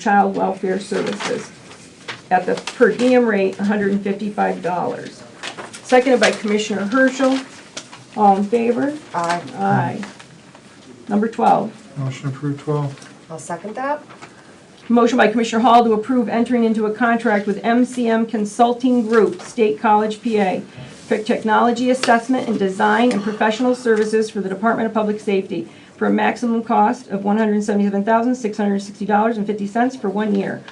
child welfare services at the per diem rate, $155. Seconded by Commissioner Herschel. All in favor? Aye. Aye. Number 12, Motion approved 12. I'll second that. motion by Commissioner Hall to approve entering into a contract with MCM Consulting Group, State College, PA, for technology assessment and design and professional services for the Department of Public Safety for a maximum cost of $177,660.50 for one year.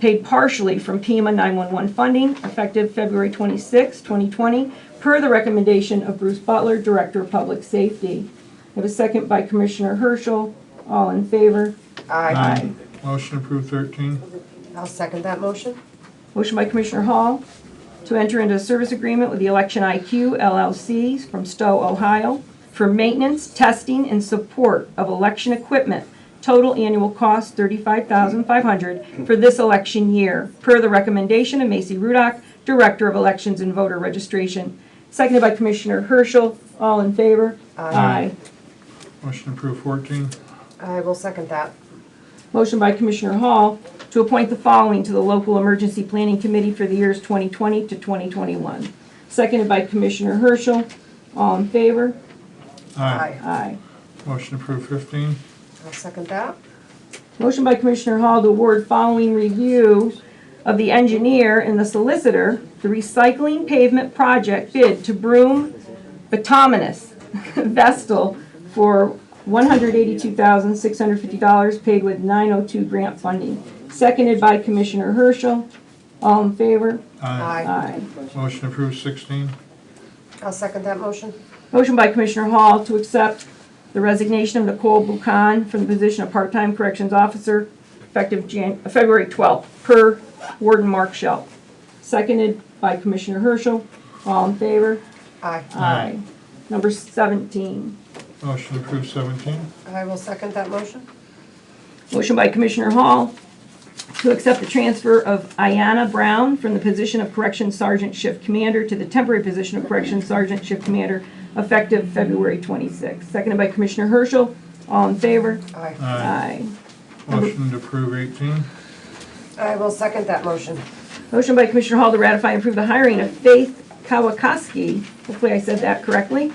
paid partially from Pima 911 funding effective February 26, 2020, per the recommendation of Bruce Butler, Director of Public Safety. I have a second by Commissioner Herschel. All in favor? Aye. Motion approved 13. I'll second that motion. Motion by Commissioner Hall to enter into a service agreement with the Election IQ LLC from Stowe, Ohio, for maintenance, testing, and support of election equipment. Total annual cost $35,500 for this election year, per the recommendation of Macy Rudock, Director of Elections and Voter Registration. Seconded by Commissioner Herschel. All in favor? Aye. Motion approved 14. I will second that. Motion by Commissioner Hall to appoint the following to the local emergency planning committee for the years 2020 to 2021. Seconded by Commissioner Herschel. All in favor? Aye. Motion approved 15. I'll second that. Motion by Commissioner Hall to award following review of the engineer and the solicitor, the recycling pavement project bid to Broom Batominus Vestal for $182,650 paid with 902 grant funding. Seconded by Commissioner Herschel. All in favor? Aye. Aye. Motion approved 16. I'll second that motion. Motion by Commissioner Hall to accept the resignation of Nicole Buchan from the position of part-time corrections officer effective Jan, uh, February 12th, per Warden Mark Schell. Seconded by Commissioner Herschel. All in favor? Aye. Aye. Number 17. Motion approved 17. I will second that motion. Motion by Commissioner Hall to accept the transfer of Ayana Brown from the position of Corrections Sergeant Shift Commander to the temporary position of Corrections Sergeant Shift Commander effective February 26th. Seconded by Commissioner Herschel. All in favor? Aye. Aye. Aye. Motion to approve 18. I will second that motion. Motion by Commissioner Hall to ratify and approve the hiring of Faith Kawakowski, hopefully I said that correctly,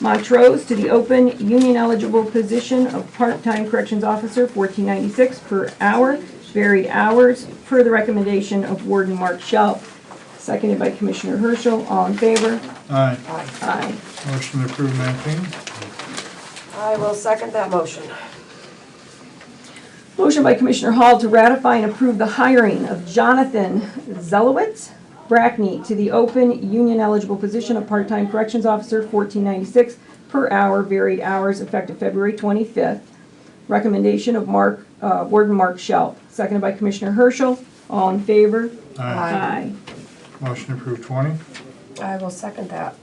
Montrose to the open union eligible position of part-time corrections officer, fourteen ninety-six per hour, varied hours, per the recommendation of Warden Mark Schell. Seconded by Commissioner Herschel, all in favor? Aye. Aye. Aye. Motion approved 19. I will second that motion. Motion by Commissioner Hall to ratify and approve the hiring of Jonathan Zelowitz Brackney to the open union eligible position of part-time corrections officer, fourteen ninety-six per hour, varied hours, effective February twenty-fifth. Recommendation of Mark, uh, Warden Mark Schell, seconded by Commissioner Herschel. All in favor? Aye. Aye. Motion approved 20. I will second that.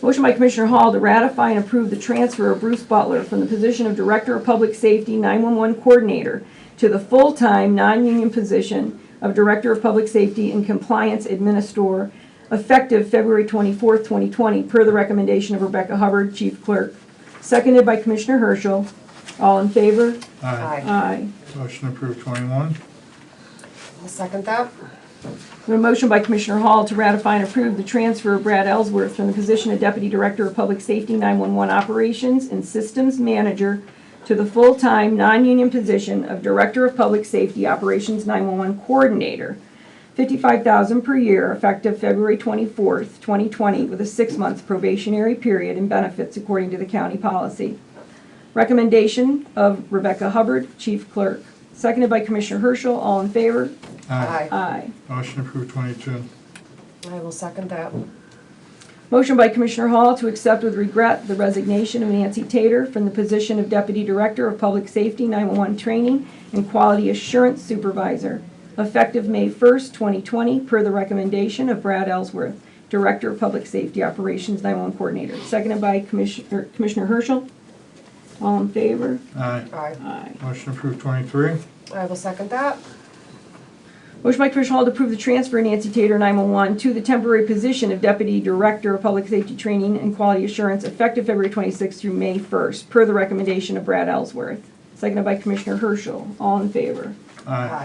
Motion by Commissioner Hall to ratify and approve the transfer of Bruce Butler from the position of Director of Public Safety 911 Coordinator to the full-time, non-union position of Director of Public Safety and Compliance Administrator effective February 24th, 2020, per the recommendation of Rebecca Hubbard, Chief Clerk. Seconded by Commissioner Herschel. All in favor? Aye. Aye. Aye. Motion approved 21. I'll second that. A motion by Commissioner Hall to ratify and approve the transfer of Brad Ellsworth from the position of Deputy Director of Public Safety 911 Operations and Systems Manager to the full-time, non-union position of Director of Public Safety Operations 911 Coordinator, 55000 per year, effective February 24th, 2020, with a six-month probationary period and benefits according to the county policy. Recommendation of Rebecca Hubbard, Chief Clerk. Seconded by Commissioner Herschel. All in favor? Aye. Aye. Motion approved 22. I will second that. Motion by Commissioner Hall to accept with regret the resignation of Nancy Tater from the position of Deputy Director of Public Safety 911 Training and Quality Assurance Supervisor, effective May 1st, 2020, per the recommendation of Brad Ellsworth, Director of Public Safety Operations 911 Coordinator, seconded by Commissioner Commissioner Herschel. All in favor? Aye. Aye. Aye. Motion approved 23. I will second that. Motion by Commissioner Hall to approve the transfer of Nancy Tater, 911, to the temporary position of Deputy Director of Public Safety Training and Quality Assurance effective February 26th through May 1st, per the recommendation of Brad Ellsworth. Seconded by Commissioner Herschel. All in favor? Aye.